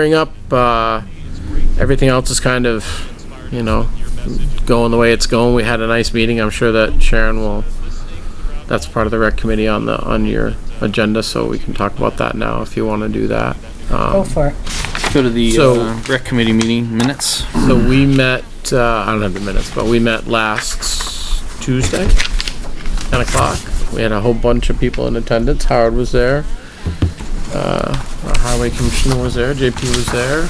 clearing up. Uh, everything else is kind of, you know, going the way it's going. We had a nice meeting. I'm sure that Sharon will. That's part of the rec committee on the on your agenda, so we can talk about that now if you want to do that. Go Um, for it. Go to the So- uh, rec committee meeting minutes. so we met. Uh, I don't have the minutes, but we met last Tuesday, ten o'clock. We had a whole bunch of people in attendance. Howard was there. Uh, our highway commissioner was there. JP was there.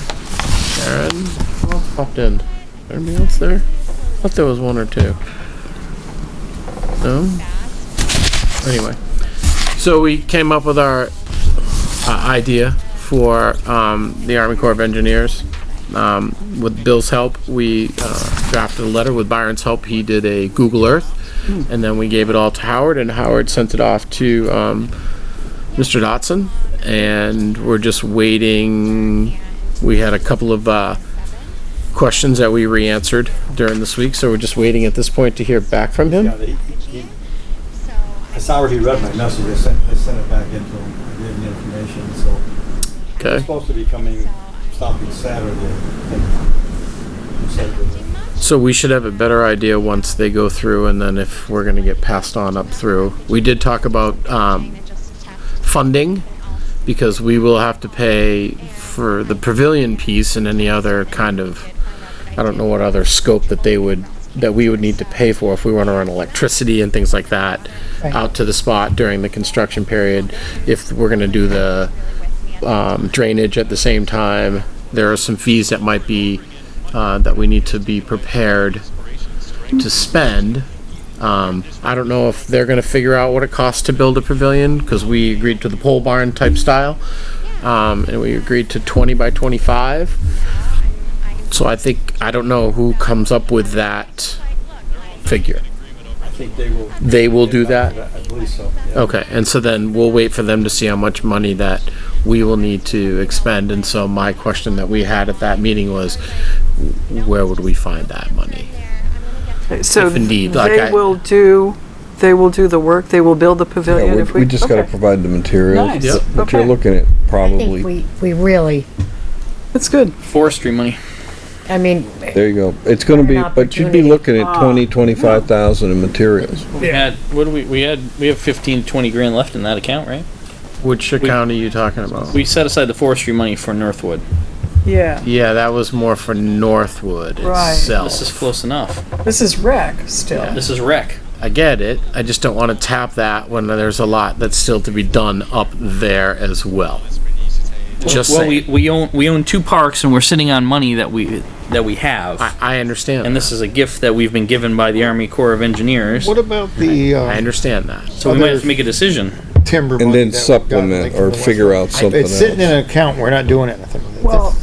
Sharon who else popped in. Anybody else there? I thought there was one or two. No. Oh. Anyway, so we came up with our uh, idea for um, the Army Corps of Engineers. Um, with Bill's help, we uh, drafted a letter. With Byron's help, he did a Google Earth, and then we gave it all to Howard, and Howard sent it off to um, Mr. Dotson, and we're just waiting. We had a couple of uh, questions that we re-answered during this week, so we're just waiting at this point to hear back from him. Yeah, they, he, I saw he read my message, I sent, I sent it back into him, I gave him the information, so. He's Okay. Supposed to be coming, stopping Saturday, I think. He said that- uh, So we should have a better idea once they go through and then if we're gonna get passed on up through. We did talk about, um, funding, because we will have to pay for the pavilion piece and any other kind of, I don't know what other scope that they would, that we would need to pay for if we wanna run electricity and things like that Right. out to the spot during the construction period, if we're gonna do the, um, drainage at the same time. There are some fees that might be, uh, that we need to be prepared to spend. Um, I don't know if they're gonna figure out what it costs to build a pavilion, because we agreed to the pole barn type style. Um, and we agreed to twenty by twenty-five. So I think, I don't know who comes up with that figure. I think they will. They will do that? I believe so, yeah. Okay, and so then we'll wait for them to see how much money that we will need to expend, and so my question that we had at that meeting was, where would we find that money? So If indeed, like I- they will do, they will do the work, they will build the Yeah, pavilion we, if we. we just gotta okay. provide the materials. Nice. Yep. But you're Okay. looking at I think probably, we, we really, That's good. Forestry money. I mean, there you go. It's gonna be, An but you'd opportunity. be looking at Ah. twenty, twenty-five thousand in materials. We had what do we we had we have 15 to 20 grand left in that account, right? Which account are you talking about? We set aside the forestry money for Northwood. Yeah, Yeah, that was more for Northwood Right. This is itself. close enough. this is rec still. This is rec. I get it, I just don't want to tap that when there's a lot that's still to be done up there as well. Just well, we, saying, we own we own two parks and we're sitting on money that we that we have. I, I understand, and that. this is a gift that we've been given by the Army Corps of Engineers. What about the I uh, understand that. so we might have other- to make a decision. timber? And then money that we got, like, supplement from or the West- figure out something It's sitting in else. an account, we're not doing anything with it. Well,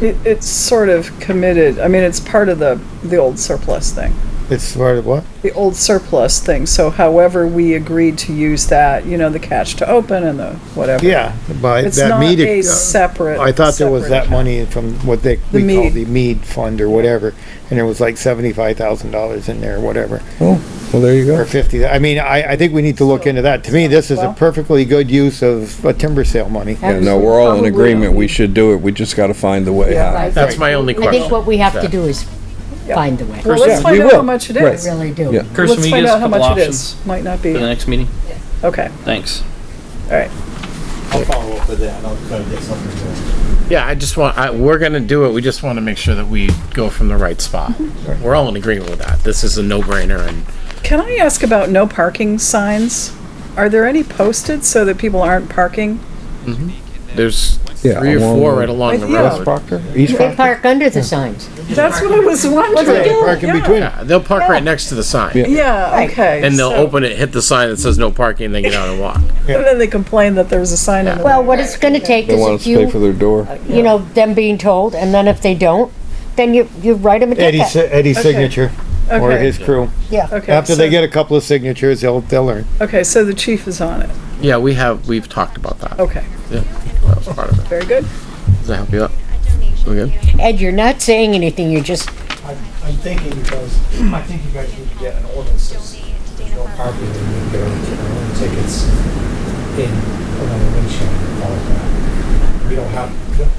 it, it's sort of committed, I mean, it's part of the, the old surplus thing. It's part of what? The old surplus thing, so however we agreed to use that, you know, the cash to open and the whatever. Yeah, by It's that not mead. a ac- separate. I thought there was separate that money from what they, The we call mead. the mead fund or whatever, and it was like seventy-five thousand dollars in there, whatever, Oh, well, there you go. or fifty. I mean, I, I think we need to look into that. To me, this is a Well- perfectly good use of uh, timber sale money. Yeah, no, we're all in agreement. We should do it. We just gotta find the way Yeah. out. right. That's my only I think question. what we have to do is find the way. Well, Yeah, let's find we out how will. much it Right. is. I really do. Yeah. Kirsten, Let's will you give find us out a how couple much it options is. Might not be, for the okay, next meeting? all Thanks. right. I'll follow up with that, and I'll try to get something going. Yeah, I just want, I, we're gonna do it, we just wanna make sure that we go from the right spot. We're all in agreement with that, this is a no-brainer and Can I ask about no parking signs? Are there any posted so that people aren't parking? there's Yeah, three or along four the- right along the Yeah. West road. Proctor, East They Proctor? park under the signs. That's what I was They wondering. park in Yeah. between. Yeah, they'll park right next to the sign. Yeah. Yeah, okay. And they'll so- open it, hit the sign that says no parking, they get out and walk. And then they complain that there's a sign in the. Well, what it's gonna take They is want a us to pay for few, their door. you know, them being told, and then if they don't, then you, you write them a Eddie's, ticket. Eddie's Okay. signature, or Okay. his crew. Yeah, Okay, After so- they get a couple of signatures, they'll, they'll learn. Okay, so the chief is on it. Yeah, we have, we've talked about that. Okay, That was part of it. very good. Does that help you out? We good? Ed, you're not saying anything, you're just, I'm, I'm thinking because, I think you guys need to get an ordinance that's, there's no parking in the buildings, you know, tickets in, around the windshield, and all of that. We don't have,